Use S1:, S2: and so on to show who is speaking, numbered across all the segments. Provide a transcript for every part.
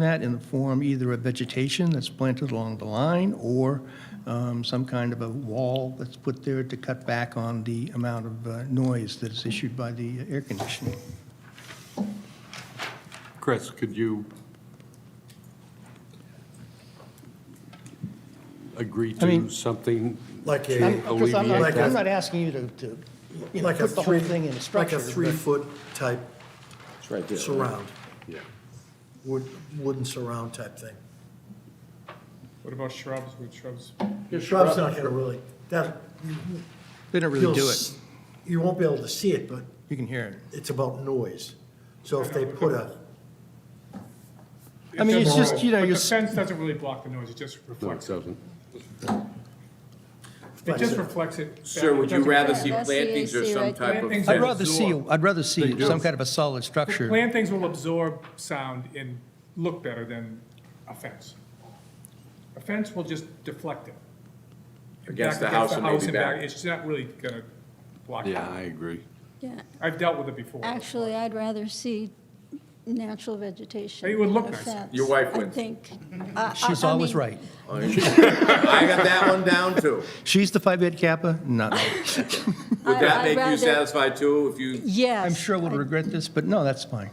S1: that in the form either of vegetation that's planted along the line or um, some kind of a wall that's put there to cut back on the amount of uh, noise that is issued by the air conditioning.
S2: Chris, could you agree
S1: I mean-
S2: to something?
S3: Like
S2: to
S3: a,
S1: I'm- Chris, I'm not-
S2: alleviate
S1: I'm
S2: that?
S1: not asking you to- to, you know,
S3: like a
S1: put the whole
S3: three,
S1: thing in a
S3: like
S1: structure.
S3: a
S1: but-
S3: three-foot type
S4: It's right there. right?
S3: surround,
S2: Yeah.
S3: wood, wooden surround type thing.
S5: What about shrubs? Would shrubs,
S3: Your shrub's not gonna really, that. you-
S1: They don't really
S3: you'll
S1: do it.
S3: s- You won't be able to see it, but
S1: You can hear it.
S3: it's about noise. So if they put a,
S1: I mean, it's
S5: doesn't-
S1: just, you know,
S5: but
S1: you're
S5: The
S1: s-
S5: fence doesn't really block the noise, it just
S2: No, it
S5: reflects, it
S2: doesn't.
S5: It just reflects it. back.
S6: Sir, would
S5: It
S6: you
S5: doesn't-
S6: rather see
S7: That's the
S6: plantings or
S7: AC
S6: some
S7: right
S6: type of
S5: Plantings
S6: fence?
S1: I'd rather see,
S6: or-
S1: I'd rather see
S2: do.
S1: some kind of a solid structure.
S5: Plantings will absorb sound and look better than a fence. A fence will just deflect it. And
S6: Against
S5: back
S6: the house and maybe
S5: back-
S6: back.
S5: It's not really gonna block it.
S2: Yeah, I agree.
S7: Yeah,
S5: I've dealt with it before.
S7: actually, I'd rather see natural vegetation.
S5: It would look
S7: than a
S5: nicer.
S7: fence,
S6: Your wife
S7: I
S6: wins.
S7: think. I- I-
S1: She's
S7: I
S1: always
S7: mean,
S1: right.
S6: I got that one down too.
S1: She's the Phi Beta Kappa? No.
S6: Would
S7: I-
S6: that
S7: I'd
S6: make you
S7: rather-
S6: satisfied too if you,
S7: Yes.
S1: I'm sure we'll
S7: I-
S1: regret this, but no, that's fine.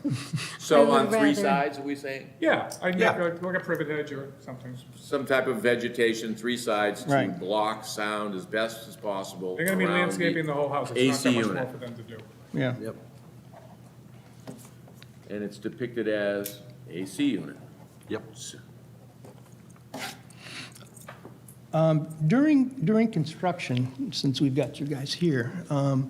S6: so
S7: would
S6: on three
S7: rather-
S6: sides, are we saying?
S5: Yeah, I'd make,
S6: Yeah.
S5: a- like a privet hedge or something.
S6: Some type of vegetation, three sides to
S1: Right.
S6: block sound as best as possible.
S5: They're gonna be
S6: around the-
S5: landscaping the whole house, it's
S6: AC
S5: not that much
S6: unit.
S5: more for them to do.
S1: Yeah.
S6: Yep. And it's depicted as AC unit.
S2: Yep.
S1: During, during construction, since we've got you guys here, um,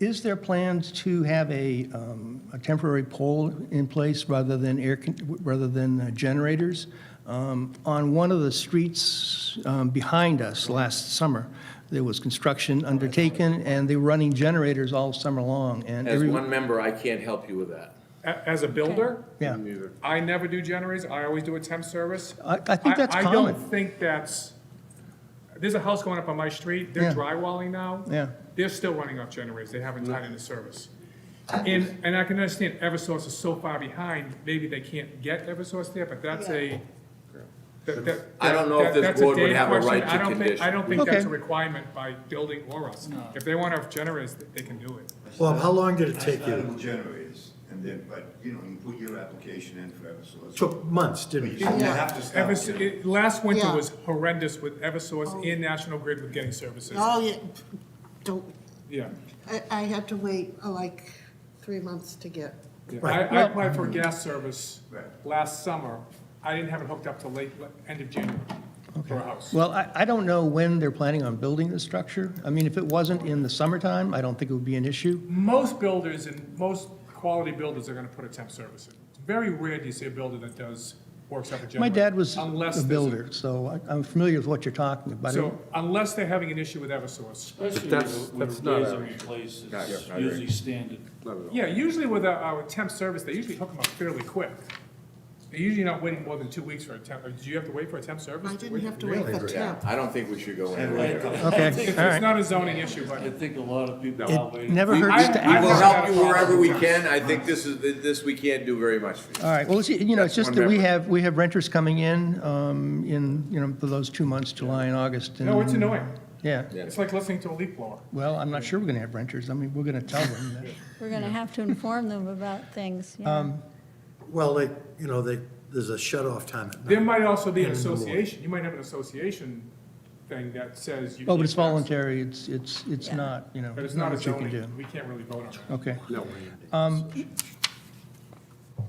S1: is there plans to have a, um, a temporary pole in place rather than air, con- rather than uh, generators? Um, On one of the streets um, behind us last summer, there was construction undertaken, and they were running generators all summer long, and
S6: As
S1: every...
S6: one member, I can't help you with that.
S5: A- As a builder,
S1: Yeah,
S5: I never do generators, I always do a temp service.
S1: I, I think that's
S5: I don't
S1: common.
S5: think that's, there's a house going up on my street,
S1: Yeah.
S5: they're drywalling now.
S1: Yeah.
S5: They're still running off generators, they haven't
S6: Mm-hmm.
S5: tied into service. And, and I can understand Eversource is so far behind, maybe they can't get Eversource there, but that's a. that- that-
S6: I don't know
S5: that-
S6: if this
S5: that's a
S6: board would
S5: Dave
S6: have a
S5: question.
S6: right to
S5: I don't think-
S6: condition.
S5: I don't think that's
S1: Okay.
S5: a requirement by building or us. If they want to have generators, they can do it.
S3: Bob, how long did it
S8: I
S3: take
S8: started
S3: you?
S8: with generators, and then, but, you know, you put your application in for Eversource.
S3: Took months,
S8: But
S3: didn't
S8: you
S3: it?
S8: didn't have to stop.
S5: Evers, it- last winter
S9: Yeah.
S5: was horrendous with Eversource and National Grid with getting services.
S9: Oh, yeah, don't,
S5: Yeah.
S9: I, I had to wait uh, like three months to get,
S5: Yeah,
S3: Right.
S5: I, I applied for gas
S1: Mm-hmm.
S5: service
S8: Right.
S5: last summer. I didn't have it hooked up till late, le- end of January for a house.
S1: Well, I, I don't know when they're planning on building the structure. I mean, if it wasn't in the summertime, I don't think it would be an issue.
S5: Most builders and most quality builders are gonna put a temp service in. It's very rare do you see a builder that does, works up a generator.
S1: My dad was
S5: unless
S1: a
S5: there's
S1: builder, so I- I'm familiar with what you're talking about.
S5: So unless they're having an issue with Eversource.
S2: But that's, that's not,
S10: Raise
S2: a-
S10: and replace
S6: Not yet,
S10: is
S6: not
S10: usually standard.
S5: Yeah, usually with our- our temp service, they usually hook them up fairly quick. They're usually not waiting more than two weeks for a temp, or do you have to wait for a temp service?
S9: I didn't have to wait for
S6: Yeah,
S9: temp.
S6: I don't think we should go anywhere.
S1: Okay,
S5: It's
S1: all
S5: it's
S1: right.
S5: not a zoning issue, but.
S10: I think a lot of people are
S1: It
S10: waiting.
S1: never
S5: I-
S1: hurts to ask.
S5: I-
S6: We will
S5: I've
S6: help
S5: got
S6: you
S5: a
S6: wherever
S5: problem.
S6: we can. I think this is, this we can't do very much for you.
S1: All right, well, it's, you know, it's just
S6: One
S1: that we
S6: member.
S1: have, we have renters coming in, um, in, you know, for those two months, July and August.
S5: No, it's
S1: and-
S5: annoying.
S1: Yeah,
S5: It's like listening to a leaf blower.
S1: well, I'm not sure we're going to have renters. I mean, we're going to tell them that.
S7: We're going to have to inform them about things, yeah.
S1: Um,
S3: Well, they, you know, they, there's a shut-off time at
S5: There
S3: night.
S5: might also be an association, you might have an association thing that says you.
S1: Oh, but it's
S5: need X,
S1: voluntary, it's, it's, it's not, you know,
S5: But it's
S1: not
S5: not a
S1: what you can do.
S5: zoning, we can't really vote on it.
S1: Okay. Um,
S2: no,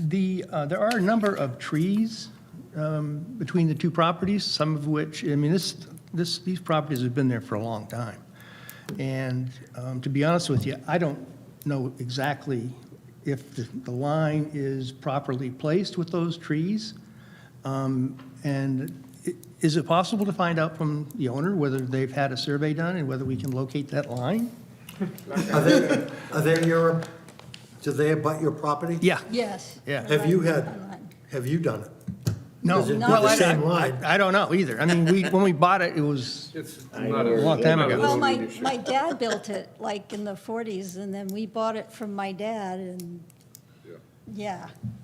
S1: The, uh, there are a number of trees um, between the two properties, some of which, I mean, this, this, these properties have been there for a long time. And um, to be honest with you, I don't know exactly if the the line is properly placed with those trees. Um, And i- is it possible to find out from the owner whether they've had a survey done and whether we can locate that line?
S3: Are they, are they your, do they abut your property?
S1: Yeah.
S7: Yes.
S1: Yeah.
S3: Have you had-
S7: Online.
S3: Have you done it?
S1: No.
S3: Is it
S1: Well,
S3: the
S1: I-
S3: same
S1: I-
S3: line?
S1: I don't know either. I mean, we, when we bought it, it was,
S2: it's not a.
S1: A long time
S2: not a
S1: ago.
S7: Well, my,
S2: zoning issue.
S7: my dad built it like in the 40s, and then we bought it from my dad, and, yeah,